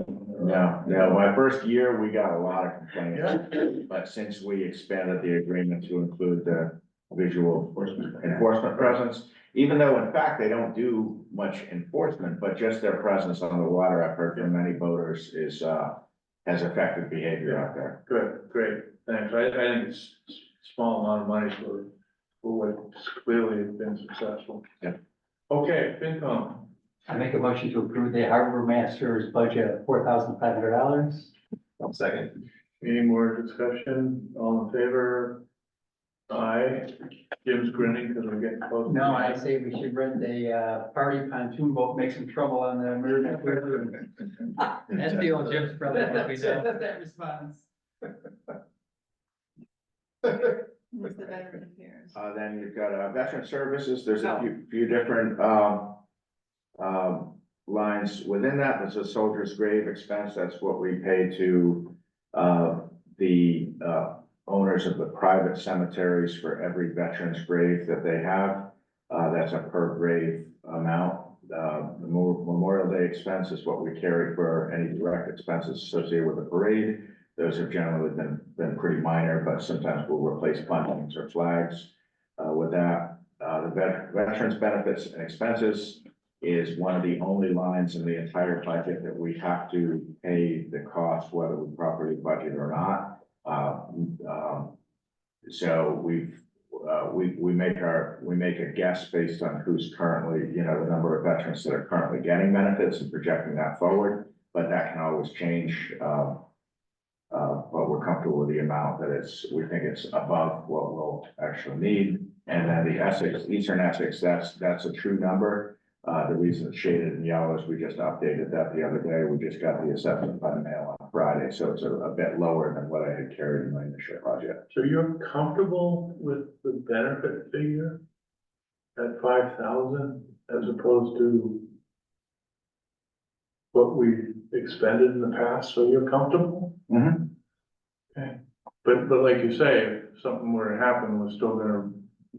No, no, my first year, we got a lot of complaints, but since we expanded the agreement to include the visual enforcement presence, even though in fact they don't do much enforcement, but just their presence on the water, I've heard from many boaters is, uh, has affected behavior out there. Good, great, thanks. I, I think it's a small amount of money for, for what's clearly been successful. Yeah. Okay, FinCom, I make a motion to approve the harbor master's budget of four thousand five hundred dollars. Second. any more discussion? All in favor? Aye. Jim's grinning because we're getting close. No, I say we should rent a, uh, party pontoon boat, make some trouble on the American River. That's the old Jim's brother, that we know. That response. Who's the veteran affairs? Uh, then you've got, uh, veteran services, there's a few, few different, um, um, lines within that, there's a soldier's grave expense, that's what we pay to, uh, the, uh, owners of the private cemeteries for every veteran's grave that they have. Uh, that's a per grave amount. Uh, the Mo- Memorial Day expense is what we carry for any direct expenses associated with the parade. Those have generally been, been pretty minor, but sometimes we'll replace buntings or flags, uh, with that. Uh, the vet- veterans benefits and expenses is one of the only lines in the entire budget that we have to pay the cost, whether we properly budget or not. Uh, um, so we've, uh, we, we make our, we make a guess based on who's currently, you know, the number of veterans that are currently getting benefits and projecting that forward, but that can always change, uh, uh, but we're comfortable with the amount that it's, we think it's above what we'll actually need. And then the Essex, Eastern Essex, that's, that's a true number. Uh, the reason it's shaded in yellow is we just updated that the other day. We just got the assessment by mail on Friday, so it's a, a bit lower than what I had carried in my initial budget. So you're comfortable with the benefit figure? At five thousand as opposed to what we expended in the past, so you're comfortable? Mhm. Okay, but, but like you say, if something were to happen, we're still gonna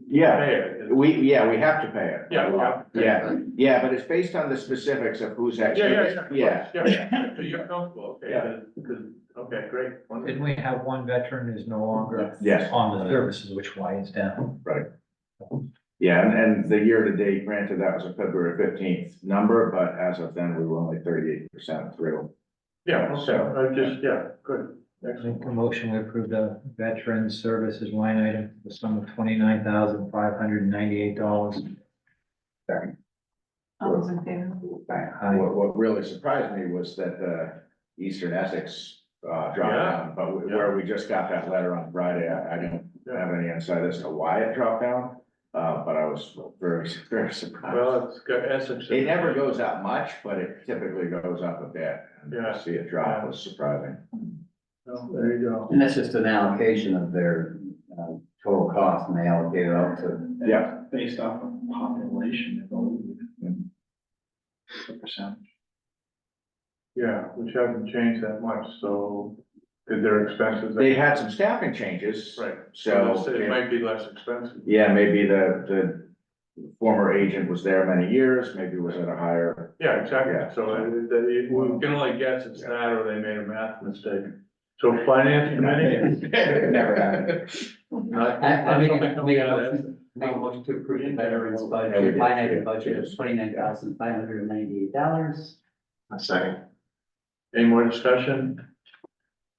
Yeah, pay it. we, yeah, we have to pay it. Yeah, we have to pay it. Yeah, yeah, but it's based on the specifics of who's Yeah, actually. yeah, yeah. Yeah, of course, Yeah, so you're comfortable, okay, Yeah. good, good, okay, great. Didn't wonderful. we have one veteran who's no longer yes. on the services, which winds down? Yeah, and, and the year-to-date, granted, that was a February fifteenth number, but as of then, we were only thirty-eight percent through. Yeah, okay, I just, yeah, good, I excellent. Make a motion to approve the veteran services line item, for the sum of twenty-nine thousand five hundred and ninety-eight dollars. All those in favor? Um, What, what really surprised me was that the Eastern Essex, uh, dropped Yeah. down, but we- where we just got that letter on Friday, I, I don't have any insight as to why it dropped down. Uh, but I was very, very surprised. Well, it's got Essex. in It never goes up much, but it typically goes up a bit. And Yeah. to see it drop was surprising. No, There you go. And that's just an allocation of their, uh, total cost and they allocate it out to Yeah, based off of population. Percent. Yeah, which haven't changed that much, so did their expenses. they had some staffing changes. Right, So. so it if- might be less expensive. Yeah, maybe the, the former agent was there many years, maybe was at a higher, Yeah, exactly, Yeah. so uh, it- it- it- we can only guess it's that or they made a math mistake. So finance committee? never happened. Not- I, I not make, something a- coming make a out of motion, make a motion to approve the veterans Yeah, we did. budget, line item budget of twenty-nine thousand five hundred and ninety-eight dollars. A second. that. Any more discussion?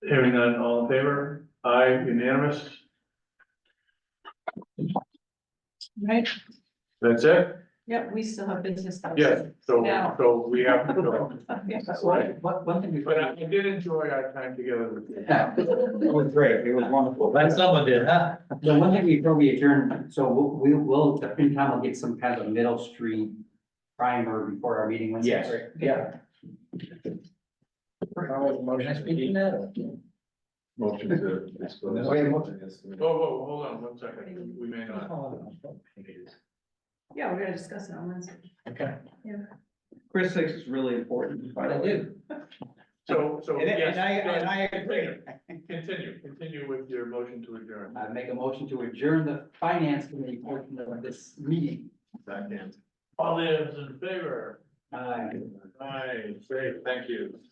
Hearing none, all in favor? Aye, unanimous? Right, That's it? yep, we still have business. though. Yes, so, No. so we have to go. Okay. One, one thing But I I before. did enjoy our time together with you. It was great, it was wonderful. That someone did, huh? The one thing before we adjourn, so we'll- we will, the FinCom will get some kind of middle street primer before our meeting. Wednesday. Yes. Yeah. Can I speak in that? or? Motion to. Wait, motion. Whoa, whoa, hold on one second, we may not. Yeah, we're gonna discuss it on Wednesday. Okay. Chris thinks it's really important. I do. So, so. And I- yes, and I- and I go ahead. Continue, continue with your motion to adjourn. I make a motion to adjourn the finance committee portion of this meeting. All those in favor? Aye. Aye, great, thank you.